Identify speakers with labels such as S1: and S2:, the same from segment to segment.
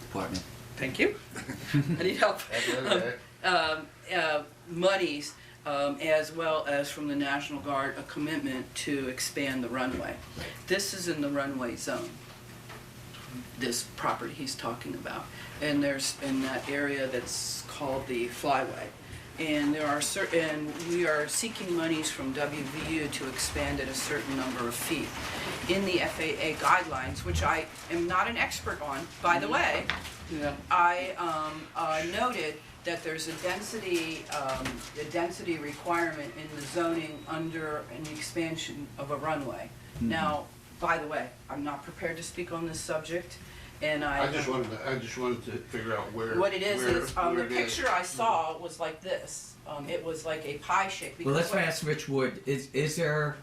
S1: department.
S2: Thank you. I need help.
S3: That's
S2: Um, uh, Muddies, um, as well as from the National Guard, a commitment to expand the runway. This is in the runway zone, this property he's talking about. And there's, in that area that's called the flyway. And there are certain, we are seeking monies from WVU to expand at a certain number of feet. In the FAA guidelines, which I am not an expert on, by
S3: Mm.
S2: the way,
S1: Yeah.
S2: I um, uh, noted that there's a density, um, a density requirement in the zoning under an expansion of a runway.
S3: Mm-hmm.
S2: Now, by the way, I'm not prepared to speak on this subject, and I. um,
S3: I just wanted, to- I just wanted to figure out where.
S2: What it is,
S3: where-
S2: is, um, the
S3: where it is.
S2: picture I saw was like this. Um, It was like a pie shape.
S1: Well,
S2: because
S1: that's why I
S2: what-
S1: asked Rich Wood. Is is there?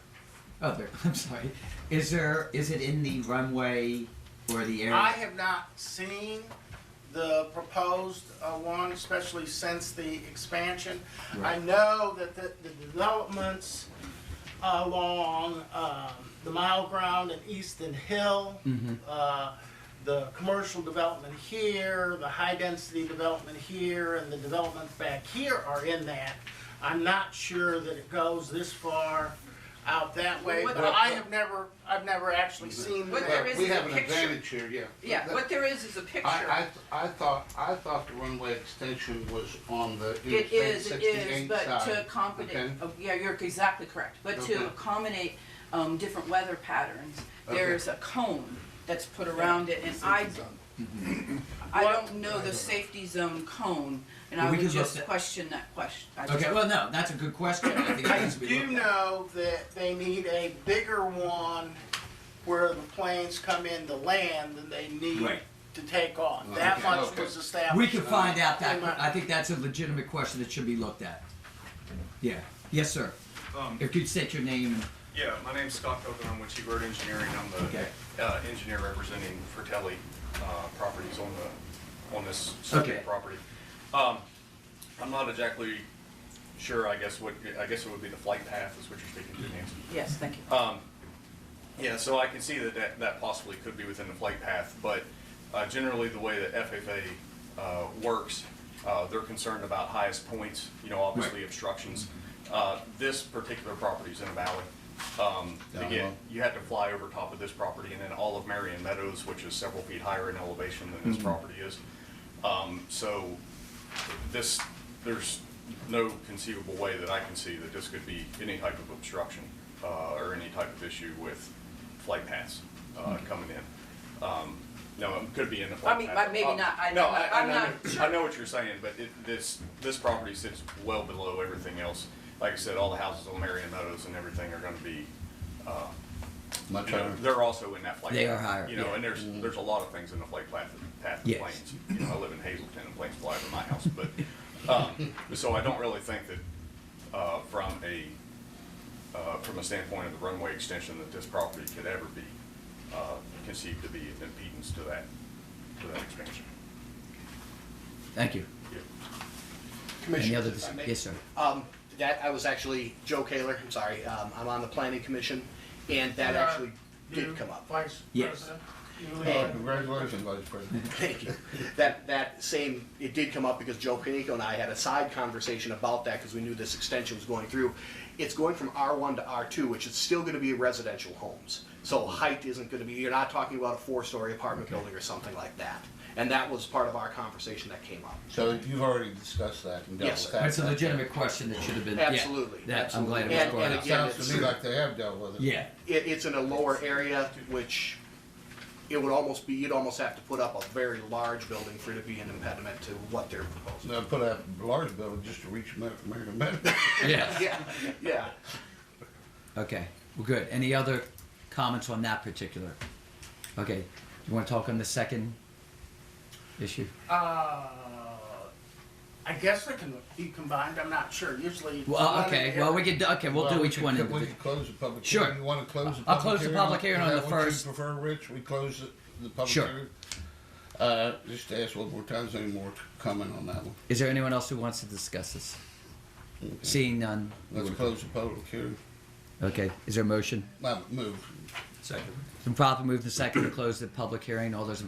S1: Oh, there. I'm sorry. Is there? Is it in the runway or the area?
S4: I have not seen the proposed uh, one, especially since the expansion. I
S1: Right.
S4: know that the the developments along um, the Mile Ground and Easton Hill, uh, the commercial development here, the high-density development here, and the developments back here are in that. I'm not sure that it goes this far out that way,
S2: What-
S4: but I have never, I've never actually seen
S2: What
S4: that.
S2: there is
S3: We
S2: is a
S3: have an
S2: picture.
S3: advantage here, yeah.
S2: Yeah, what there is is a picture.
S3: I, I, I thought, I thought the runway extension was on the
S2: It is,
S3: Interstate
S2: it is,
S3: sixty-eight
S2: but to
S3: side.
S2: accommodate,
S3: okay?
S2: oh, yeah, you're exactly correct, but
S3: Okay.
S2: to accommodate, um, different weather patterns,
S3: Okay.
S2: there's a cone that's put around it, and I, I don't know the safety zone cone, and I
S1: Well, we
S2: would
S1: can look
S2: just
S1: that-
S2: question that question. I just-
S1: okay. Well, no, that's a good question. I think it
S4: I
S1: needs to be
S4: do
S1: looked at.
S4: know that they need a bigger one where the planes come in to land than they need
S1: Right.
S4: to take off.
S3: Okay,
S4: That much
S3: okay.
S4: was established.
S1: We can find out that.
S4: Am I-
S1: I think that's a legitimate question that should be looked at. Yeah. Yes, sir.
S5: Um,
S1: If you'd state your name. and-
S5: yeah, my name's Scott Coker, I'm with Chief Road Engineering, I'm the,
S1: Okay.
S5: uh, engineer representing Fratelli, uh, properties on the, on this
S1: Okay.
S5: subject property. Um, I'm not exactly sure, I guess what, I guess it would be the flight path is what you're speaking to, Nancy.
S2: Yes, thank you.
S5: Um, yeah, so I can see that, that that possibly could be within the flight path, but uh, generally the way that FFA uh, works, uh, they're concerned about highest points, you know, obviously
S1: Right.
S5: obstructions. Uh, this particular property is in a valley. Um,
S3: Down
S5: again,
S3: low.
S5: you had to fly over top of this property and then all of Marion Meadows, which is several feet higher in elevation than this property is. Um, so this, there's no conceivable way that I can see that this could be any type of obstruction uh, or any type of issue with flight paths uh, coming in. Um, No, it could be in the flight
S2: mean,
S5: path.
S2: but maybe
S5: Uh,
S2: not. I-
S5: No,
S2: I'm
S5: I,
S2: not-
S5: I
S2: I'm
S5: know,
S2: not
S5: I know what you're saying, but it, this, this property sits well below everything else. Like I said, all the houses on Marion Meadows and everything are gonna be, uh,
S3: Much
S5: you know,
S3: higher.
S5: they're also in that flight.
S1: They
S5: path,
S1: are higher,
S5: You know,
S1: yeah. Mm-hmm.
S5: and there's, there's a lot of things in the flight path, path of
S1: Yes.
S5: planes. You know, I live in Hazleton and planes fly over my house, but, um, so I don't really think that, uh, from a, uh, from a standpoint of the runway extension, that this property could ever be, uh, conceived to be an impedance to that, to that expansion.
S1: Thank you.
S5: Yeah.
S1: Any
S6: Commissioner,
S1: other?
S6: if I may.
S1: Yes, sir.
S6: Um, that, I was actually, Joe Kaler, I'm sorry, um, I'm on the planning commission, and that
S4: Uh,
S6: actually
S4: You,
S6: did come up.
S4: Vice
S1: Yes.
S4: President. you
S3: Oh,
S4: lead.
S3: Congratulations, Vice President.
S6: Thank you. That, that same, it did come up because Joe Panico and I had a side conversation about that because we knew this extension was going through. It's going from R1 to R2, which is still going to be residential homes. So height isn't going to be, you're not talking about a four-story apartment building or something like that. And that was part of our conversation that came up.
S3: So you've already discussed that and dealt
S6: Yes,
S3: with
S6: sir.
S3: that.
S1: That's a legitimate question that should have been. yeah,
S6: Absolutely.
S1: That, I'm glad it was
S6: And-
S1: brought
S6: and
S1: up.
S3: It sounds to me
S6: Again,
S3: like they have dealt with it.
S1: Yeah.
S6: It, it's in a lower area, which it would almost be, you'd almost have to put up a very large building for it to be an impediment to what they're proposing.
S3: Now, put up a large building just to reach Mar- Marion Meadows.
S1: Yeah.
S6: Yeah, yeah.
S1: Okay, well, good. Any other comments on that particular? Okay, you want to talk on the second issue?
S4: Uh, I guess they can be combined, I'm not sure, usually. it's one
S1: Well,
S4: or
S1: okay,
S4: the
S1: well,
S4: other.
S1: we could, okay, we'll do
S3: Well,
S1: each
S3: we
S1: one
S3: could- We
S1: individually.
S3: could close the public
S1: Sure.
S3: hearing. You want to close the public hearing?
S1: I'll close the public hearing on
S3: Is
S1: the
S3: that what you
S1: first.
S3: prefer, Rich? We close the- the public
S1: Sure.
S3: hearing? Uh, Just ask one more time, is there any more to comment on that one?
S1: Is there anyone else who wants to discuss this? Seeing none.
S3: Let's close the public hearing.
S1: Okay, is there a motion?
S3: Now, move.
S1: Second. It's been properly moved and seconded to close the public hearing. All those in